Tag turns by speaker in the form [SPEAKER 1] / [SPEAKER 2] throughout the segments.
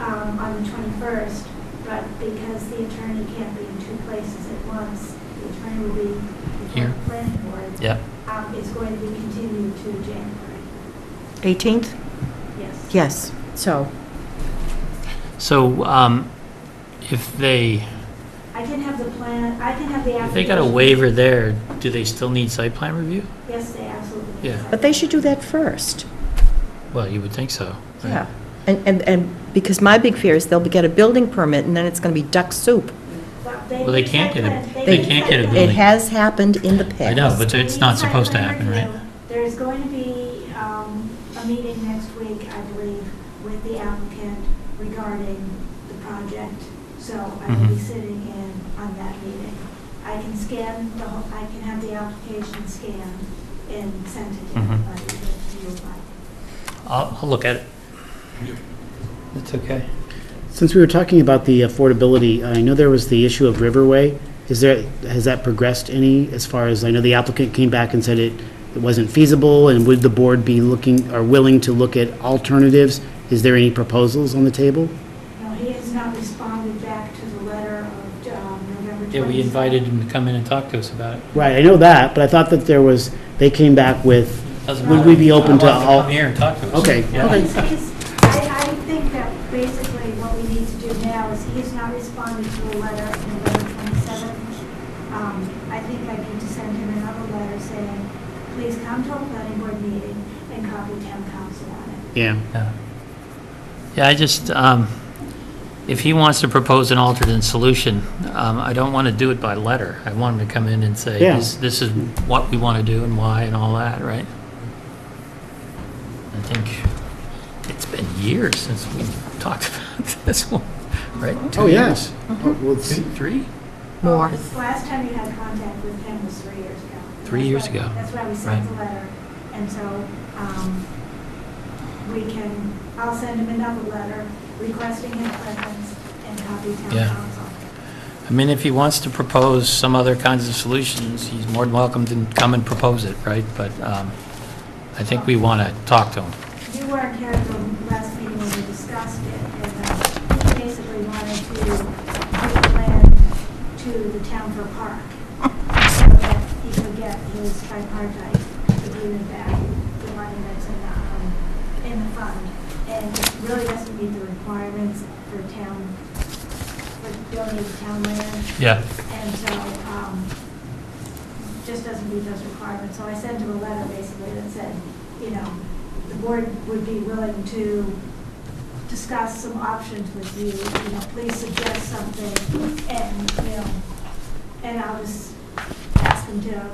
[SPEAKER 1] um, first, but because the attorney can't be in two places at once, the attorney will be before
[SPEAKER 2] Here.
[SPEAKER 1] the planning board.
[SPEAKER 2] Yep.
[SPEAKER 1] Um, It's going to be continued to January,
[SPEAKER 3] 18th?
[SPEAKER 1] yes.
[SPEAKER 3] Yes, so,
[SPEAKER 2] So um, if they,
[SPEAKER 1] I can have the plan, I can have the
[SPEAKER 2] if
[SPEAKER 1] application.
[SPEAKER 2] they got a waiver there, do they still need site plan review?
[SPEAKER 1] Yes, they absolutely.
[SPEAKER 2] Yeah.
[SPEAKER 3] but they should do that first.
[SPEAKER 2] Well, you would think so. right?
[SPEAKER 3] Yeah. And, and, and because my big fear is they'll get a building permit and then it's going to be duck soup.
[SPEAKER 1] Well,
[SPEAKER 2] Well, they can't get a-
[SPEAKER 3] they
[SPEAKER 2] can't get a
[SPEAKER 3] It
[SPEAKER 2] building.
[SPEAKER 3] has happened in the past.
[SPEAKER 2] I know, but it's not supposed to happen, right?
[SPEAKER 1] There's going to be um, a meeting next week, I believe, with the applicant regarding the project, so I will be
[SPEAKER 2] Mhm.
[SPEAKER 1] sitting in on that meeting. I can scan the, whole. I can have the application scanned and sent it to
[SPEAKER 2] Mhm.
[SPEAKER 1] everybody that you apply.
[SPEAKER 2] I'll, I'll look at it. That's okay.
[SPEAKER 4] Since we were talking about the affordability, I know there was the issue of Riverway. Is there, has that progressed any as far as, I know the applicant came back and said it, it wasn't feasible, and would the board be looking, or willing to look at alternatives? Is there any proposals on the table?
[SPEAKER 1] No, he has not responded back to the letter of um, November 27th.
[SPEAKER 2] Yeah, we invited him to come in and talk to us about it.
[SPEAKER 4] Right, I know that, but I thought that there was, they came back with,
[SPEAKER 2] Doesn't
[SPEAKER 4] Would
[SPEAKER 2] matter.
[SPEAKER 4] we be open to
[SPEAKER 2] I want him
[SPEAKER 4] all-
[SPEAKER 2] Come here and talk to us.
[SPEAKER 4] Okay,
[SPEAKER 2] Yeah.
[SPEAKER 4] okay.
[SPEAKER 1] He's- he's- I, I think that basically what we need to do now is he has not responded to a letter in November 27th. Um, I think I need to send him another letter saying, please come to a planning board meeting and copy town council on it.
[SPEAKER 4] yeah.
[SPEAKER 2] Yeah, Yeah. I just, um, if he wants to propose an alternate solution, um, I don't want to do it by letter. I want him to come in and say,
[SPEAKER 4] Yeah.
[SPEAKER 2] this this is what we want to do and why and all that, right? I think it's been years since we talked about this one, right? Two
[SPEAKER 4] Oh,
[SPEAKER 2] years?
[SPEAKER 4] yes. Oh, well, it's-
[SPEAKER 2] Two, three?
[SPEAKER 1] Well,
[SPEAKER 3] More.
[SPEAKER 1] the Last time you had contact with him was three years ago.
[SPEAKER 2] Three
[SPEAKER 1] That's
[SPEAKER 2] years
[SPEAKER 1] why-
[SPEAKER 2] ago.
[SPEAKER 1] That's why we sent the letter. And so um, we can, I'll send him another letter requesting his presence and copy
[SPEAKER 2] Yeah.
[SPEAKER 1] town council.
[SPEAKER 2] I mean, if he wants to propose some other kinds of solutions, he's more than welcome to come and propose it, right? But um, I think we want to talk to him.
[SPEAKER 1] You weren't here at the last meeting when we discussed it, and uh, he basically wanted to give land to the town for park, so that he could get his tripartite agreement back, the money that's in the, um, in the fund. And it really doesn't meet the requirements for town, for donated town land.
[SPEAKER 2] Yeah.
[SPEAKER 1] And so, um, just doesn't meet those requirements. So I sent him a letter basically that said, you know, the board would be willing to discuss some options with you, you know, please suggest something, and, you know, and I'll just ask him to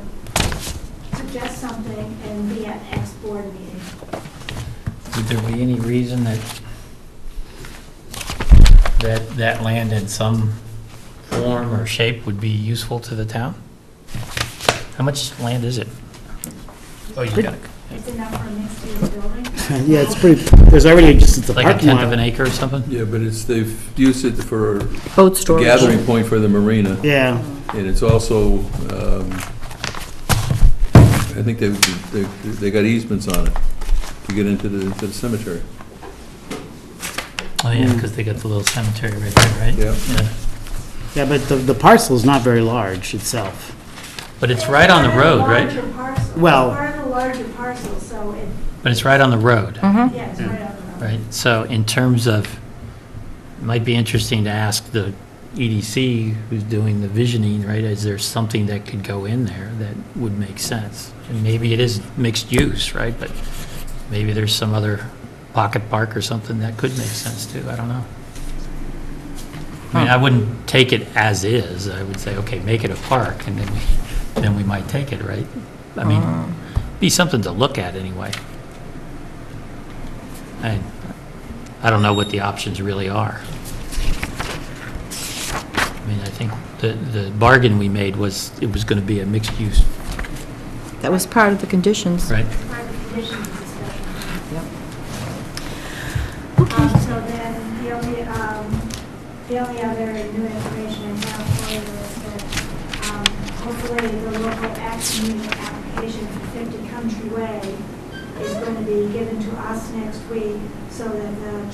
[SPEAKER 1] suggest something and be at next board meeting.
[SPEAKER 2] Would there be any reason that, that that land in some form or shape would be useful to the town? How much land is it? Oh, you got it.
[SPEAKER 1] It's enough for a mixed-use building.
[SPEAKER 4] Yeah, it's pretty, there's already, just, it's a
[SPEAKER 2] like a
[SPEAKER 4] parking
[SPEAKER 2] tenth of an
[SPEAKER 4] lot.
[SPEAKER 2] acre or something?
[SPEAKER 5] Yeah, but it's, they've used it for a
[SPEAKER 3] Boat storage.
[SPEAKER 5] gathering point for the marina,
[SPEAKER 4] Yeah,
[SPEAKER 5] and it's also, um, I think they, they, they got easements on it to get into the, into the cemetery.
[SPEAKER 2] Oh,
[SPEAKER 4] Mm.
[SPEAKER 2] yeah, because they got the little cemetery right there, right?
[SPEAKER 5] Yeah.
[SPEAKER 4] yeah, but the, the parcel's not very large itself.
[SPEAKER 2] But it's right on the road, right?
[SPEAKER 1] Larger parcel.
[SPEAKER 4] Well-
[SPEAKER 1] Part of the larger parcel, so it,
[SPEAKER 2] But it's right on the
[SPEAKER 4] Uh-huh.
[SPEAKER 2] road,
[SPEAKER 3] Mm-hmm.
[SPEAKER 1] yeah, it's right on the road.
[SPEAKER 2] right? So in terms of, it might be interesting to ask the EDC who's doing the visioning, right? Is there something that could go in there that would make sense? And maybe it is mixed use, right? But maybe there's some other pocket park or something that could make sense too. I don't know. I mean, I wouldn't take it as is. I would say, okay, make it a park and then we, then we might take it, right? I
[SPEAKER 3] Uh,
[SPEAKER 2] mean,
[SPEAKER 3] Mm-hmm.
[SPEAKER 2] be something to look at anyway. I, I don't know what the options really are. I mean, I think the, the bargain we made was, it was going to be a mixed use,
[SPEAKER 3] That was part of the conditions.
[SPEAKER 2] right?
[SPEAKER 1] Part of the conditions of the special permit.
[SPEAKER 3] Yep.
[SPEAKER 1] Um, So then, the only, um, the only other new information I have for you is that um, hopefully the local action unit application for 50 Country Way is going to be given to us next week so that the